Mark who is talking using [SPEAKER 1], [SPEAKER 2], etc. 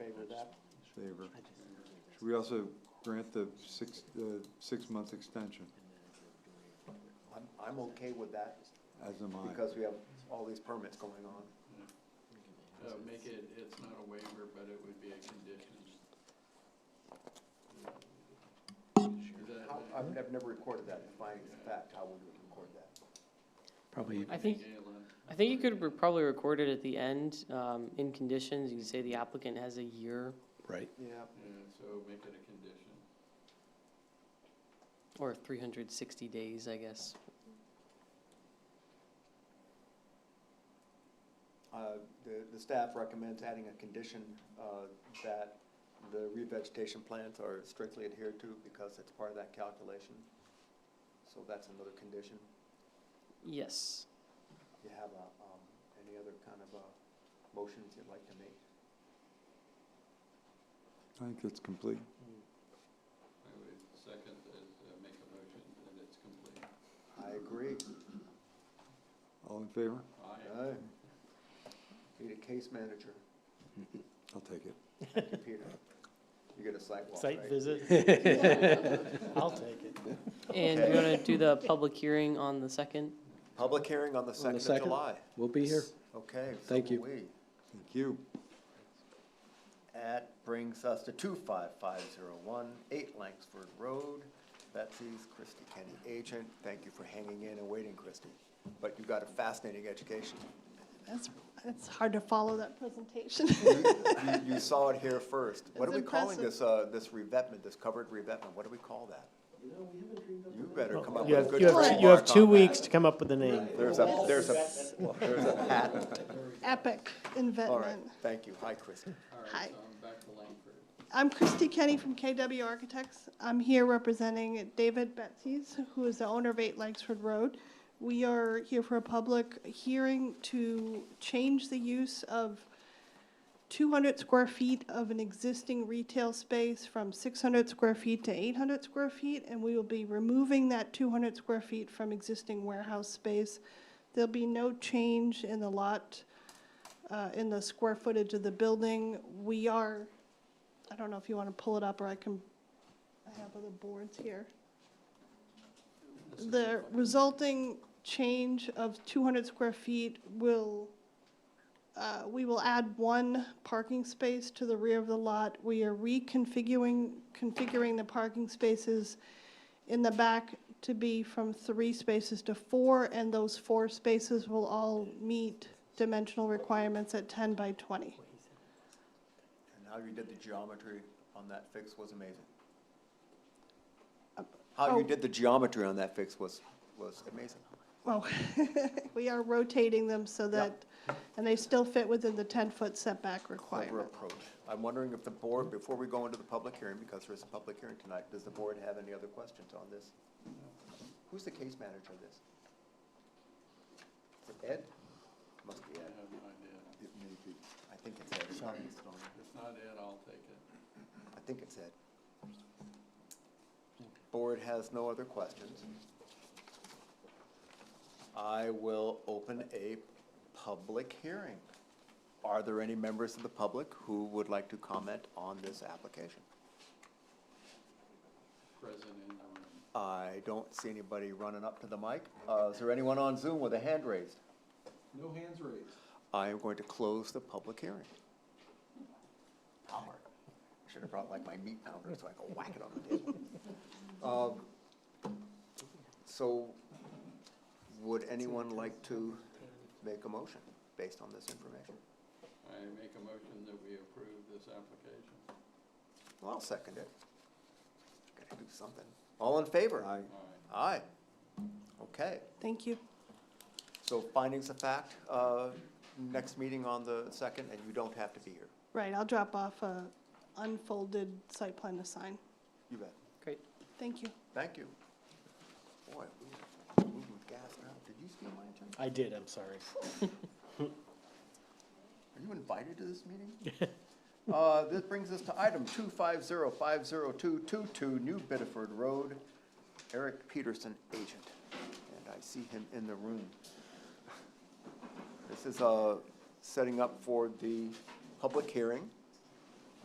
[SPEAKER 1] favor. Should we also grant the six, the six-month extension,
[SPEAKER 2] I'm, I'm okay with that,
[SPEAKER 1] as am I?
[SPEAKER 2] because we have all these permits going on.
[SPEAKER 3] Uh, make it, it's not a waiver, but it would be a condition. Is that,
[SPEAKER 2] How, I've never, never recorded that, if I, in fact, how would we record that?
[SPEAKER 4] Probably,
[SPEAKER 5] I think,
[SPEAKER 3] Galen,
[SPEAKER 5] I think you could re- probably record it at the end, um, in conditions, you can say the applicant has a year,
[SPEAKER 4] right.
[SPEAKER 2] Yeah.
[SPEAKER 3] yeah, so make it a condition.
[SPEAKER 5] or three hundred sixty days, I guess.
[SPEAKER 2] Uh, the, the staff recommends adding a condition, uh, that the revegetation plans are strictly adhered to, because it's part of that calculation. So that's another condition.
[SPEAKER 5] Yes.
[SPEAKER 2] You have a, um, any other kind of, uh, motions you'd like to make?
[SPEAKER 1] I think it's complete.
[SPEAKER 3] I would second that, uh, make a motion that it's complete.
[SPEAKER 2] I agree.
[SPEAKER 1] All in favor?
[SPEAKER 3] Aye.
[SPEAKER 2] Aye. Need a case manager,
[SPEAKER 1] I'll take it.
[SPEAKER 2] Peter. You get a sidewalk, right?
[SPEAKER 6] Site visit? I'll take it.
[SPEAKER 5] And you wanna do the public hearing on the second?
[SPEAKER 2] Public hearing on the second of
[SPEAKER 4] second.
[SPEAKER 2] July.
[SPEAKER 4] We'll be here.
[SPEAKER 2] Okay. so
[SPEAKER 4] Thank you.
[SPEAKER 2] will we.
[SPEAKER 1] Thank you.
[SPEAKER 2] That brings us to two five five zero one, eight Langsford Road. Betsy's Christie Kenny agent. Thank you for hanging in and waiting, Christie. But you got a fascinating education.
[SPEAKER 7] That's, it's hard to follow that presentation.
[SPEAKER 2] You, you- you saw it here first. What are
[SPEAKER 7] It's
[SPEAKER 2] we calling
[SPEAKER 7] impressive.
[SPEAKER 2] this, uh, this revetment, this covered revetment? What do we call that? You better come up
[SPEAKER 6] You
[SPEAKER 2] with a
[SPEAKER 6] have,
[SPEAKER 2] good
[SPEAKER 6] you
[SPEAKER 2] trademark on that.
[SPEAKER 6] have, you have two weeks to come up with a name.
[SPEAKER 2] There's a, there's a, there's a patent.
[SPEAKER 7] Epic
[SPEAKER 2] All right,
[SPEAKER 7] investment.
[SPEAKER 2] thank you. Hi, Christie.
[SPEAKER 3] All
[SPEAKER 7] Hi.
[SPEAKER 3] right, so I'm back to Langford.
[SPEAKER 7] I'm Christy Kenny from KW Architects. I'm here representing David Betsy's, who is the owner of Eight Langsford Road. We are here for a public hearing to change the use of 200 square feet of an existing retail space from 600 square feet to 800 square feet, and we will be removing that 200 square feet from existing warehouse space. There'll be no change in the lot, uh, in the square footage of the building. We are I don't know if you want to pull it up, or I can, I have other boards here. The resulting change of two hundred square feet will, uh, we will add one parking space to the rear of the lot. We are reconfiguring, configuring the parking spaces in the back to be from three spaces to four, and those four spaces will all meet dimensional requirements at ten by twenty.
[SPEAKER 2] And how you did the geometry on that fix was amazing. How you
[SPEAKER 7] oh.
[SPEAKER 2] did the geometry on that fix was, was amazing.
[SPEAKER 7] Well, we are rotating them so that, and they still fit within the 10-foot setback
[SPEAKER 2] Clever
[SPEAKER 7] requirement.
[SPEAKER 2] approach. I'm wondering if the board, before we go into the public hearing, because there is a public hearing tonight, does the board have any other questions on this? Who's the case manager of this? Is it Ed? Must be
[SPEAKER 3] I
[SPEAKER 2] Ed.
[SPEAKER 3] have no idea.
[SPEAKER 2] It may be. I think it's Ed. It's not listed on
[SPEAKER 3] If it's not it, I'll take it.
[SPEAKER 2] there. I think it's Ed. Board has no other questions. I will open a public hearing. Are there any members of the public who would like to comment on this application?
[SPEAKER 3] Present in the room.
[SPEAKER 2] I don't see anybody running up to the mic. Uh, Is there anyone on Zoom with a hand raised?
[SPEAKER 3] No hands raised.
[SPEAKER 2] I am going to close the public hearing. Power. Should have brought like my meat pounder so I could whack it on the table. Um, So would anyone like to make a motion based on this information?
[SPEAKER 3] I make a motion that we approve this application.
[SPEAKER 2] Well, I'll second it. Gotta do something. All in favor?
[SPEAKER 1] Aye.
[SPEAKER 3] Aye.
[SPEAKER 2] Aye. Okay.
[SPEAKER 7] Thank you.
[SPEAKER 2] So findings of fact, uh, next meeting on the second, and you don't have to be here.
[SPEAKER 7] Right, I'll drop off a unfolded site plan to sign.
[SPEAKER 2] You bet.
[SPEAKER 5] Great.
[SPEAKER 7] Thank you.
[SPEAKER 2] Thank you. Boy, we are moving with gas now. Did you steal my agenda?
[SPEAKER 6] I did, I'm sorry.
[SPEAKER 2] Are you invited to this meeting? Uh, this brings us to item two five zero five zero two two two, New Bedford Road, Eric Peterson, agent. And I see him in the room. This is, uh, setting up for the public hearing